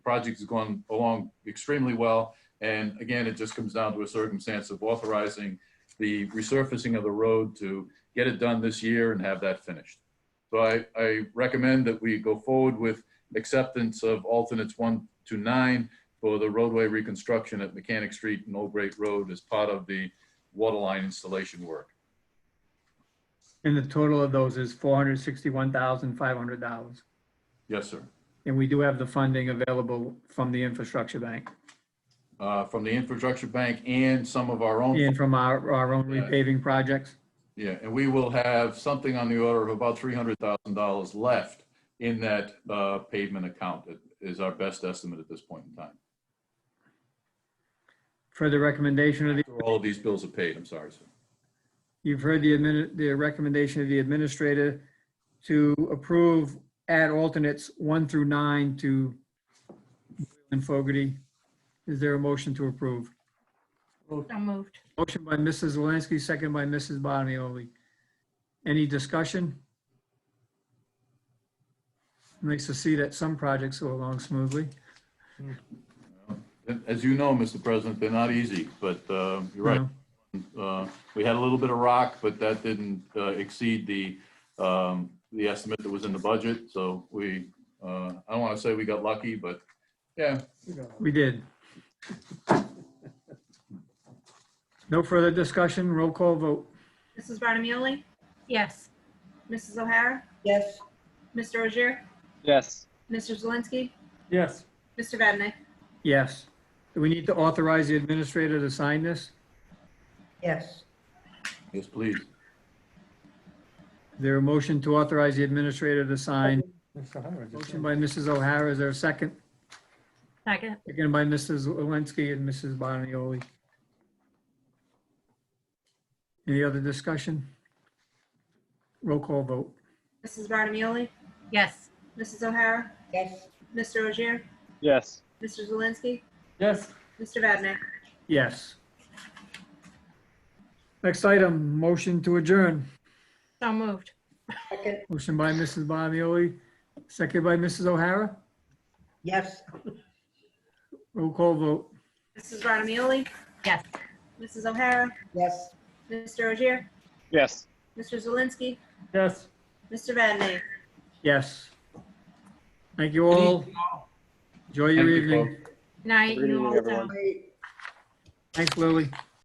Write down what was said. project has gone along extremely well. And again, it just comes down to a circumstance of authorizing the resurfacing of the road to get it done this year and have that finished. So I, I recommend that we go forward with acceptance of alternates one to nine for the roadway reconstruction at Mechanic Street and Old Great Road as part of the water line installation work. And the total of those is four hundred sixty-one thousand, five hundred dollars. Yes, sir. And we do have the funding available from the infrastructure bank Uh, from the infrastructure bank and some of our own. and from our, our own repaving projects. Yeah, and we will have something on the order of about three hundred thousand dollars left in that uh, pavement account It is our best estimate at this point in time. Further recommendation of the, After All of these bills are paid, I'm sorry, sir. you've heard the admin, the recommendation of the administrator to approve add alternates one through nine to and Fogarty. Is there a motion to approve? So moved. Motion by Mrs. Zelinski, second by Mrs. Bottomoli. Any discussion? Nice to see that some projects go along smoothly. As you know, Mr. President, they're not easy, but uh, you're right. No. Uh, We had a little bit of rock, but that didn't uh, exceed the, um, the estimate that was in the budget. So we, uh, I don't want to say we got lucky, but yeah, We did. No further discussion, roll call vote. Mrs. Barnamoli? Yes. Mrs. O'Hara? Yes, Mr. Ogier? Yes, Mr. Zelinski? Yes. Mr. Vadeney? Yes. Do we need to authorize the administrator to sign this? yes, yes, please. Is there a motion to authorize the administrator to sign? Motion by Mrs. O'Hara, is there a second? Second. Second by Mrs. Zelinski and Mrs. Bonioli. Any other discussion? Roll call vote. Mrs. Barnamoli? Yes. Mrs. O'Hara? yes, Mr. Ogier? yes, Mr. Zelinski? Yes. Mr. Vadeney? Yes. Next item, motion to adjourn. So moved. second, Motion by Mrs. Bonioli, second by Mrs. O'Hara. yes, Roll call vote. Mrs. Barnamoli? Yes. Mrs. O'Hara? yes. Mr. Ogier? yes. Mr. Zelinski? Yes. Mr. Vadeney? Yes. Thank you all. Enjoy your Thank you, evening. Night. Good evening, you all. everyone. Wait, Thanks, Lily.